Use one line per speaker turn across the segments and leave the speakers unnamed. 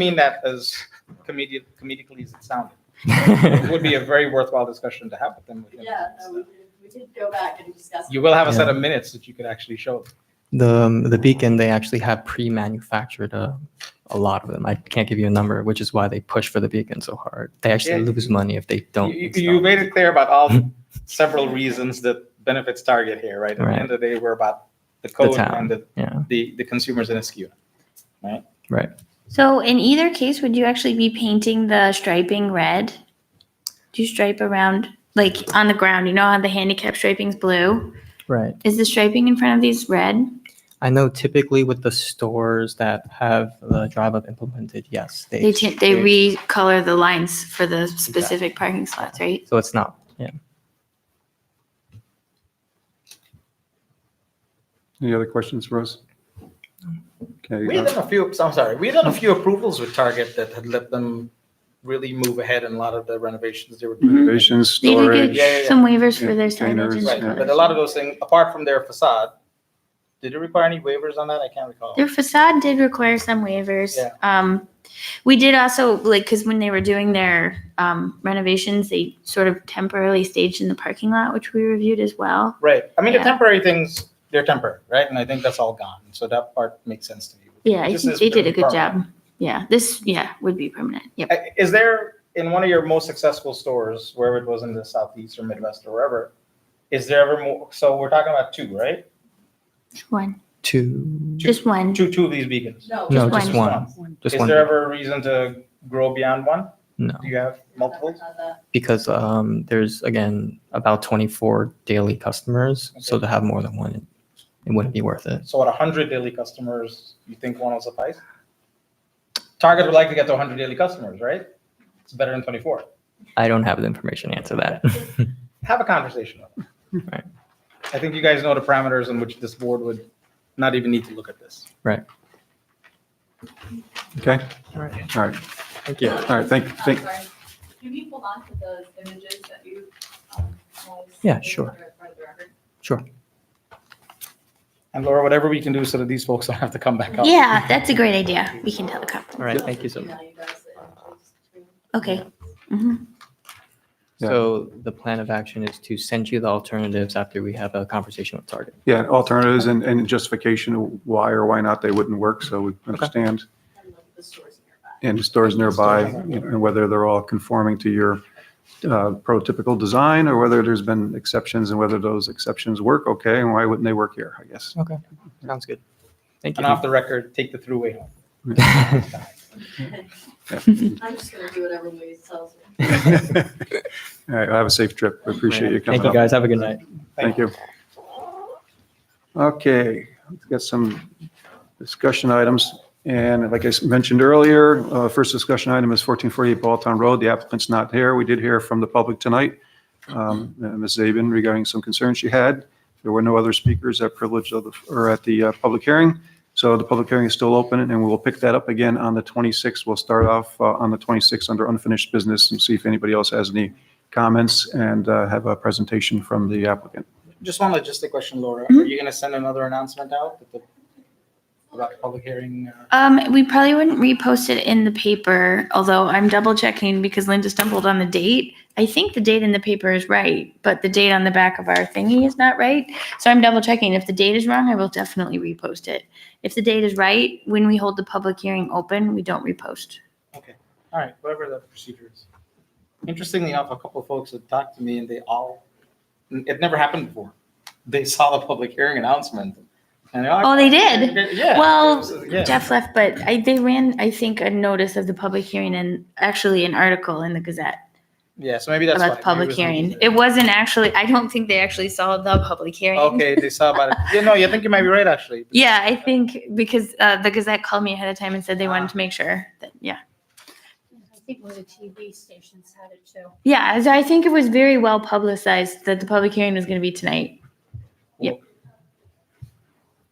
mean that as comedic, comedically as it sounded. It would be a very worthwhile discussion to have with them. within-
Yeah, no, we did, we did go back and discuss.
You will have a set of minutes that you could actually show. them.
The um, the beacon they actually have pre-manufactured a, a lot of them. I can't give you a number, which is why they push for the beacon so hard. They actually
Yeah.
lose money if they don't.
You, you-
install.
you made it clear about all several reasons that benefits Target here, right? At the end of the day, we're about the code
town,
and the,
yeah.
the, the consumers in a SKU.
So in either case, would you actually be painting the striping red? Do you stripe around, like on the ground, you know how the handicap striping's blue?
right.
Is the striping in front of these red?
I know typically with the stores that have the drive up implemented, yes, they
They, cha- they recolor the lines for the specific parking slots, right?
so it's not. Yeah.
Any other questions for us? Okay,
We had
uh,
done a few, I'm sorry, we had done a few approvals with Target that had let them really move ahead in a lot of the renovations they were doing.
renovations,
They
storage.
did
Yeah, yeah,
get
yeah.
some waivers for their
Containers,
signage. and
Right,
Yeah.
but
colors.
a lot of those things, apart from their facade, did it require any waivers on that? I can't recall.
Their facade did require some waivers.
Yeah.
Um, we did also like because when they were doing their um, renovations, they sort of temporarily staged in the parking lot, which we reviewed as well.
Right. I mean, the
Yeah.
temporary things, they're temporary, right? And I think that's all gone. So that part makes sense to me.
Yeah, I
This
think
is
they did a good
permanent.
job. Yeah, this yeah would be permanent. Yep.
I- Is there, in one of your most successful stores, wherever it was in the Southeast or Midwest or wherever, is there ever more? So we're talking about two, right?
Just one.
Two.
Just one.
Two, two of these beacons.
No.
No,
just
just one. Just
Is
one.
there ever a reason to grow beyond one?
no.
Do you have multiples?
Uh,
because um, there's again about 24 daily customers so
Okay.
to have more than one it, it wouldn't be worth it
So at 100 daily customers, you think one will suffice? Target would like to get to 100 daily customers, right? It's better than 24.
i don't have the information to answer that
have a conversation with them.
Right.
I think you guys know the parameters in which this board would not even need to look at this.
Okay,
all right
all right,
thank you
all right, thank,
I'm
thank,
sorry. Can you hold on to those images that you? um, guys
Yeah,
made
sure.
for- for the record?
sure
And Laura, whatever we can do so that these folks don't have to come back up.
Yeah, that's a great idea. We can tell the cop.
all right thank you so much
Email you guys the images to-
Okay. hmm
Yeah.
so the plan of action is to send you the alternatives after we have a conversation with target
yeah, alternatives and, and justification of why or why not they wouldn't work, so we understand.
And look at the stores nearby.
And the stores nearby, you know, and whether they're all conforming to your uh, prototypical design, or whether there's been exceptions, and whether those exceptions work okay, and why wouldn't they work here, I guess.
sounds good thank
And off the record, take the throughway home.
you
I'm just gonna do whatever Louise tells me.
All right, have a safe trip, we appreciate you coming
thank you
up.
guys have a good night
Thank you. Okay, let's get some discussion items. And like I s- mentioned earlier, uh, first discussion item is 1448 Balltown Road. The applicant's not here. We did hear from the public tonight, um, uh, Ms. Zabin regarding some concerns she had. There were no other speakers at privilege of, the or at the uh, public hearing. So the public hearing is still open and we'll pick that up again on the 26th. We'll start off uh, on the 26th under unfinished business and see if anybody else has any comments and uh, have a presentation from the applicant.
Just one logistic question, Laura.
Mm-hmm.
Are you going to send another announcement out with the- about the public hearing? uh,
Um, we probably wouldn't repost it in the paper, although I'm double checking because Linda stumbled on the date. I think the date in the paper is right, but the date on the back of our thingy is not right. So I'm double checking. If the date is wrong, I will definitely repost it. If the date is right, when we hold the public hearing open, we don't repost.
All right, whatever the procedure is. Interestingly enough, a couple of folks had talked to me and they all, it never happened before. They saw the public hearing announcement. and they're like,
Oh, they did?
Yeah.
Well,
Yeah.
Jeff left, but I, they ran, I think, a notice of the public hearing and actually an article in the Gazette.
Yeah, so maybe that's why.
about the
Maybe it
public
was maybe
hearing.
the-
It wasn't actually, I don't think they actually saw the public hearing.
Okay, they saw about it. Yeah, no, you think you might be right, actually.
Yeah, I think because uh, the Gazette called me ahead of time and said they wanted to make sure that, yeah.
I think one of the TV stations had it too.
Yeah, as I think it was very well publicized that the public hearing was going to be tonight.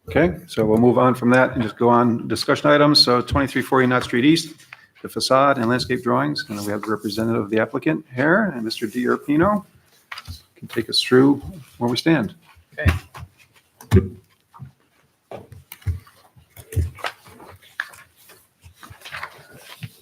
Okay, so we'll move on from that and just go on discussion items. So 2340 Knott Street East, the facade and landscape drawings. And then we have the representative of the applicant here, and Mr. Di Urpino can take us through where we stand.